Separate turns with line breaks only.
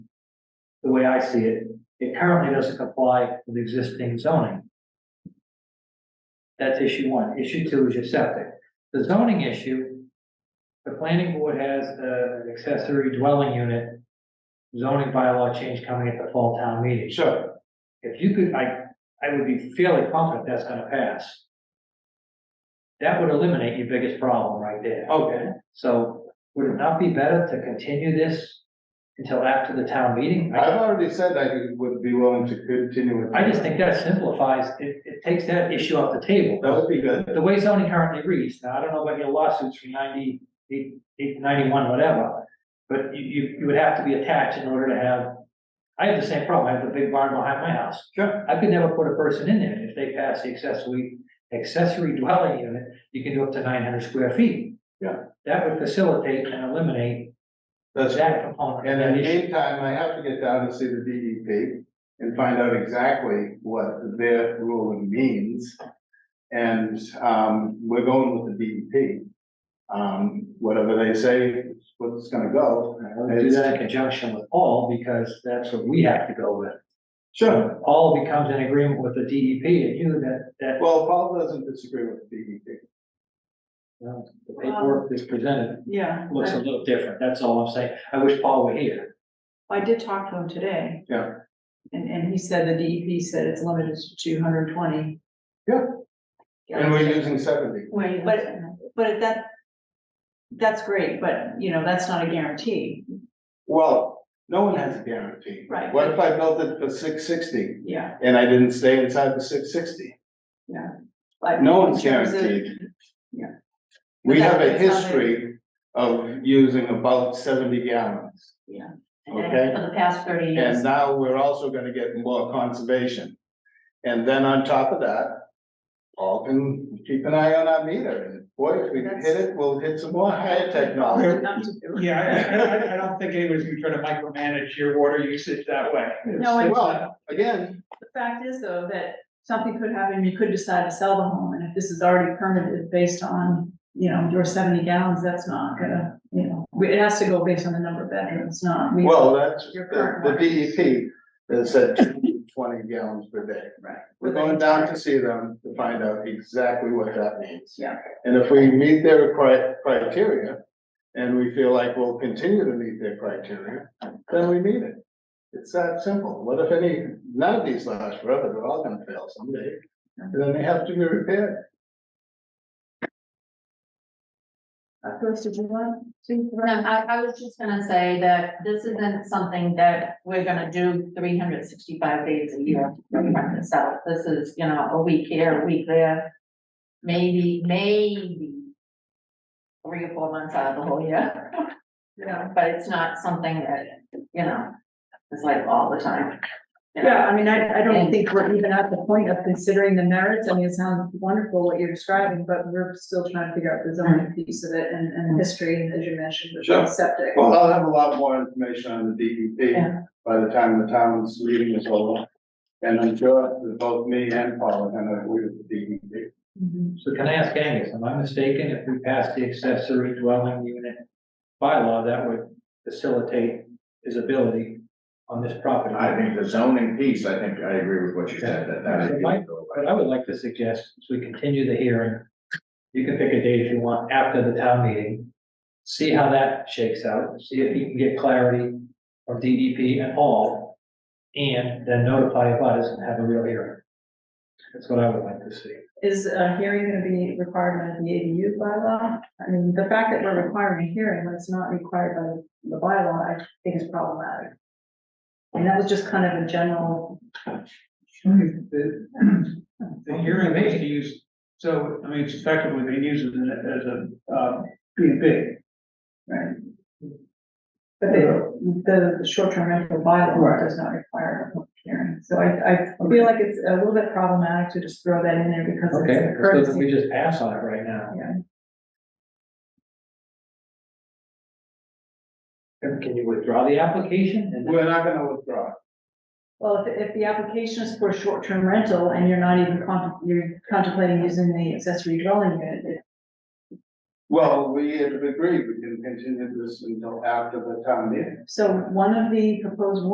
the way I see it, it currently doesn't comply with existing zoning. That's issue one. Issue two is your septic. The zoning issue, the planning board has uh, an accessory dwelling unit zoning bylaw change coming at the fall town meeting. So if you could, I, I would be fairly confident that's gonna pass. That would eliminate your biggest problem right there.
Okay.
So would it not be better to continue this until after the town meeting? I
I've already said I would be willing to continue with.
I just think that simplifies, it, it takes that issue off the table.
That would be good.
The way zoning currently reads, now, I don't know about your lawsuits from ninety, eight, eight, ninety-one, whatever, but you, you, you would have to be attached in order to have, I have the same problem, I have the big barn behind my house.
Sure.
I could never put a person in there, if they pass the accessory, accessory dwelling unit, you can do up to nine hundred square feet.
Yeah.
That would facilitate and eliminate
That's,
that component.
and in
That
the
issue.
meantime, I have to get down to see the DEP and find out exactly what their ruling means. And, um, we're going with the DEP. Um, whatever they say, is what's gonna go.
I would Do that in conjunction with all, because that's what we have to go with.
Sure.
all becomes an agreement with the DEP and you that, that
Well, Paul doesn't disagree with the E DEP.
well, uh, the paperwork that's presented
Yeah,
looks a little different. That's all I'm saying. I wish Paul were here.
I did talk to him today.
Yeah.
And, and he said the DEP said it's limited to two hundred and twenty.
Yeah. And we're using seventy.
Wait, but, but if that, that's great, but, you know, that's not a guarantee,
Well, no one has a guarantee.
Right.
What if I built it for six sixty
yeah.
and I didn't stay inside the six sixty?
but
No one's
in terms of-
guaranteed.
yeah.
We
But
have a
that's not
history of using about seventy gallons.
Yeah.
Okay,
the past thirty
and now we're also gonna get more conservation. And then on top of that, all can keep an eye on our meter, and boy, if we
That's-
hit it, we'll hit some more higher technology.
Enough to do.
Yeah, I- I, I, I don't think anybody's gonna try to micromanage your water usage that way.
No, I-
Well, again,
The fact is though, that something could happen, you could decide to sell the home, and if this is already permitted based on, you know, your seventy gallons, that's not gonna, you know, we- it has to go based on the number of bedrooms, not. we-
well, that's
Your
the,
current
the
one.
DEP that said twenty gallons per day.
Right.
We're going down to see them to find out exactly what that means.
Yeah.
And if we meet their cri- criteria, and we feel like we'll continue to meet their criteria, then we meet it. It's that simple. What if any, none of these last forever, they're all gonna fail someday, and then they have to be repaired.
Uh, Bruce, did you want to?
No, I, I was just gonna say that this isn't something that we're gonna do three hundred sixty-five days a year from front to south. This is, you know, a week here, a week there. Maybe, maybe three or four months out of the whole year, you know, but it's not something that, you know, it's like all the time. you know?
Yeah, I mean, I, I don't
And-
think we're even at the point of considering the merits. I mean, it sounds wonderful what you're describing, but we're still trying to figure out the zoning piece of it and, and history, as you mentioned, with the
Sure.
septic.
Well, I'll have a lot more information on the DEP
Yeah.
by the time the town's meeting is over. And I'm sure that both me and Paul are gonna agree with the E DEP.
Mhm.
So can I ask Angus, am I mistaken if we pass the accessory dwelling unit bylaw that would facilitate his ability on this property?
I think the zoning piece, I think I agree with what you said, that that
Okay.
is.
But I would like to suggest, as we continue the hearing, you can pick a date if you want after the town meeting. See how that shakes out, see if you can get clarity from DDP and all, and then notify abutters and have a real hearing. That's what I would like to see.
Is a hearing gonna be required by the ADU bylaw? I mean, the fact that we're requiring a hearing when it's not required by the bylaw, I think is problematic. And that was just kind of a general.
The the hearing they used, use, so, I mean, it's effectively, they use it as a, uh, B and B.
Right. But the, the short-term rental bylaw does not require a public hearing, so I, I feel like it's a little bit problematic to just throw that in there because it's
Okay,
a
so then
courtesy.
we just pass on it right now.
Yeah.
And Can you withdraw the application and
We're not gonna withdraw.
Well, if, if the application is for a short-term rental and you're not even con, you're contemplating using the accessory dwelling unit, it-
Well, we have agreed, we can continue this until after the town meeting.
so one of the proposed